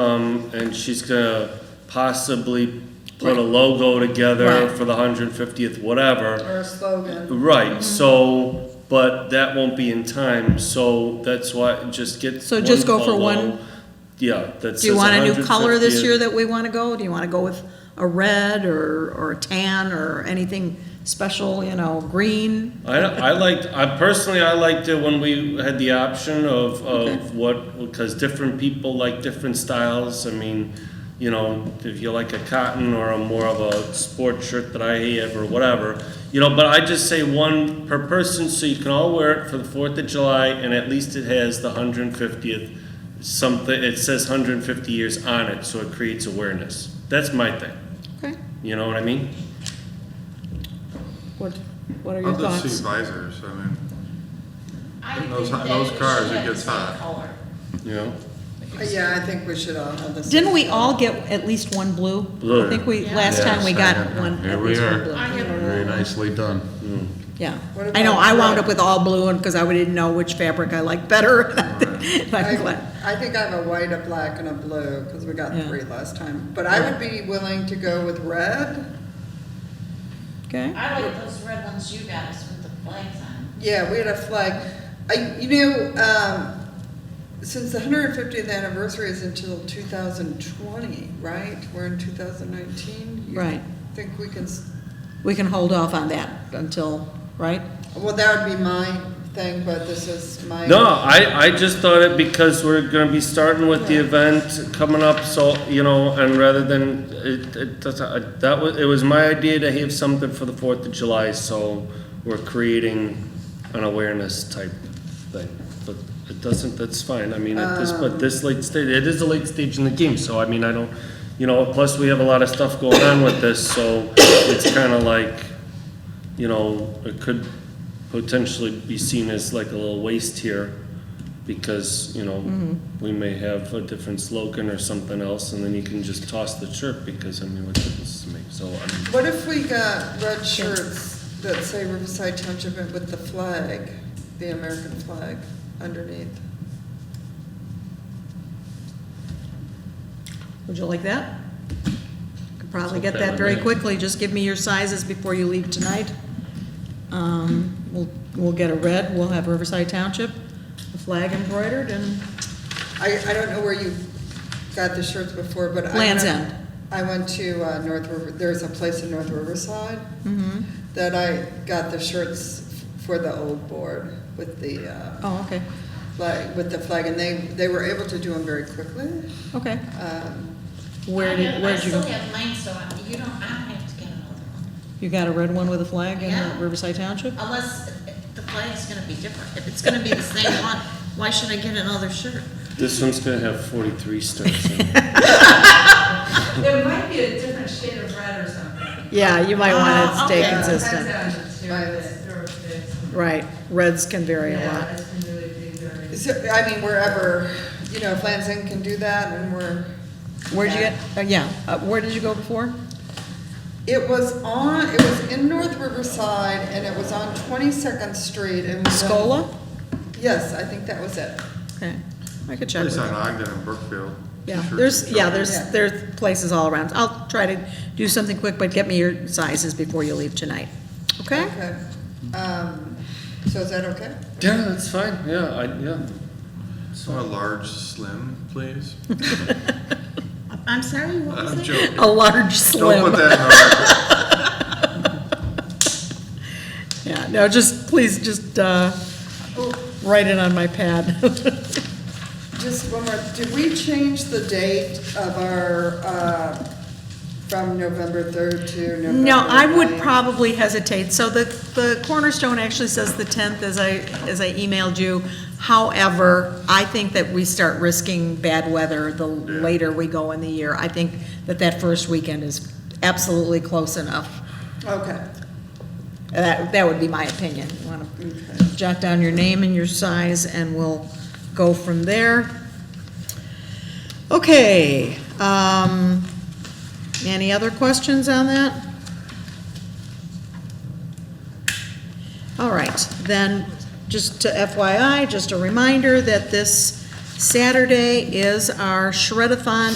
come and she's gonna possibly put a Right. logo together Right. for the hundred fiftieth, whatever. or a slogan. Right, so, but that won't be in time, so that's why, just get. So just go for logo. one? Yeah, that's. Do you want a new color this year that we want to go? Do you want to go with a red or, or a tan or anything special, you know, green? I, don't- I liked, I personally, I liked it when we had the option of, of what, because different people like different styles. I mean, you know, if you like a cotton or a more of a sport shirt that I have or whatever, you know, but I just say one per person so you can all wear it for the Fourth of July and at least it has the hundred and fiftieth, something, it says hundred and fifty years on it, so it creates awareness. That's my thing, Okay, you know what I mean? what, what are your I'll just see thoughts? visors, I mean, I In think those- that those it cars, should it have the gets same hot. color. You know? Yeah, I think we should all have this. Didn't we all get at least one blue? Blue. I think we, Yeah. last time we got Yes, I- one, here at we least one are. blue. I have very nicely done. Yeah, What I know, about I wound red? up with all blue and, because I didn't know which fabric I liked better. I But what- I think I have a white, a black, and a blue, because we got Yeah. three last time. But I would be willing to go with red. Okay, I like those red ones you got us with the flags on. Yeah, we had a flag. I, you know, um, since the hundred and fiftieth anniversary is until two thousand twenty, right? We're in two thousand nineteen? Right. Think we can, s- we can hold off on that until, right? well, that would be my thing, but this is my. No, I, I just thought it because we're gonna be starting with the event coming up, so, you know, and rather than, it, it, doesn't- I- that was, it was my idea to have something for the Fourth of July, so we're creating an awareness type thing. But it doesn't, that's fine, I mean, at this, but this late stage, it is a late stage in the game, so I mean, I don't, you know, plus we have a lot of stuff going on with this, so it's kinda like, you know, it could potentially be seen as like a little waste here because, you know, we may have a different slogan or something else and then you can just toss the chirp because, I mean, what difference does it make? So, um, I mean, What if we got red shirts that say Riverside Township with the flag, the American flag underneath? Would you like that? Could probably get Okay that with very me. quickly, just give me your sizes before you leave tonight. Um, we'll, we'll get a red, we'll have Riverside Township, the flag embroidered, and I, I don't know where you got the shirts before, but I. Land's went- End. I went to uh, North River, there's a place in North Riverside mm-hmm. that I got the shirts for the old board with the, uh, Oh, okay, flag, with the flag, and they, they were able to do them very quickly. okay. Um, Where I did, have- where'd you I go? still have mine, so I- you don't, I don't have to get another one. You got a red one with a flag in Yeah. uh, Riverside Township? Unless uh, the flag's gonna be different. If it's gonna be the same one, why should I get another shirt? this one's gonna have forty-three stars in it. There might be a different shade of red or something. Yeah, you might want to Oh, stay okay. consistent. Depends on the material that- or if it's- Right, reds can vary a Yeah, lot. it's been really big during- So, I mean, wherever, you know, if Land's End can do that, and we're. Where'd you Yeah. get, uh, yeah, uh, where did you go before? It was on, it was in North Riverside, and it was on Twenty-second Street, and. we- Scola? Yes, I think that was it. Okay, I could check with Place them. on Ogden and Brookfield. Yeah, Sure. there's, yeah, Yeah. there's, there's places all around. I'll try to do something quick, but get me your sizes before you leave tonight, okay? Okay. Um, so is that okay? Yeah, that's fine, yeah, I, yeah. So a large slim, please. I'm sorry, what was I'm it? joking. A large Don't put slim. that in our record. Yeah, no, just, please, just, uh, write it on my pad. Just one more, did we change the date of our, uh, from November third to November? No, I would 9th? probably hesitate. So the, the cornerstone actually says the 10th, as I, as I emailed you. However, I think that we start risking bad weather the later we go in the year. I think that that first weekend is absolutely close enough. Okay, That, that would be my opinion. You want Okay. to jot down your name and your size, and we'll go from there. Okay, um, any other questions on that? All right, then, just to FYI, just a reminder that this Saturday is our shredathon